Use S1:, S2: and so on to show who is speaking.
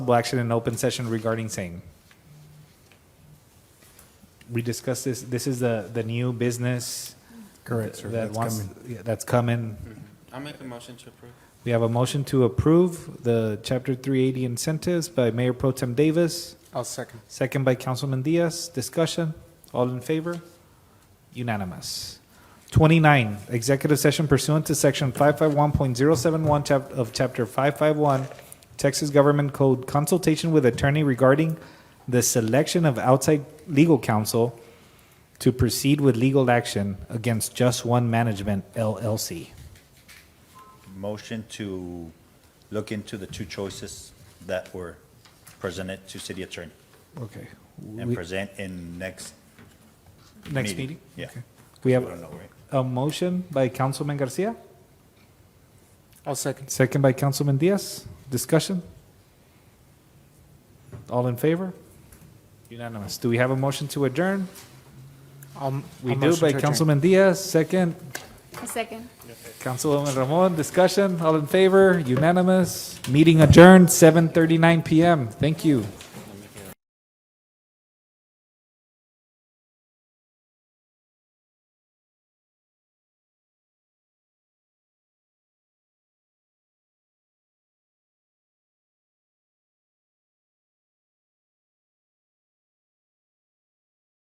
S1: possible action in open session regarding same. We discussed this, this is the, the new business.
S2: Correct, sir.
S1: That
S2: That's
S1: wants,
S2: coming.
S1: yeah, that's coming.
S3: Mm-hmm. I'll make a motion to approve.
S1: We have a motion to approve the chapter three eighty incentives by Mayor Pro Tem Davis,
S2: I'll second.
S1: second by Councilman Diaz. Discussion, all in favor? Unanimous. Twenty-nine, executive session pursuant to section five-five-one point zero-seven-one chap, of chapter five-five-one, Texas Government Code, consultation with attorney regarding the selection of outside legal counsel to proceed with legal action against Just One Management LLC.
S4: Motion to look into the two choices that were presented to city attorney
S1: Okay.
S4: and present in next,
S1: Next
S4: meeting.
S1: meeting?
S4: Yeah.
S1: Okay. We
S4: I don't
S1: have
S4: know, right?
S1: a motion by Councilman Garcia,
S2: I'll second.
S1: second by Councilman Diaz. Discussion? All in favor? Unanimous. Do we have a motion to adjourn?
S2: I'll-
S1: We
S2: I'll
S1: do
S2: Um, motion
S1: by
S2: to adjourn.
S1: Councilman Diaz, second.
S5: A second.
S1: Councilwoman Ramon, discussion? All in favor? Unanimous. Meeting adjourned, 7:39 PM. Thank you.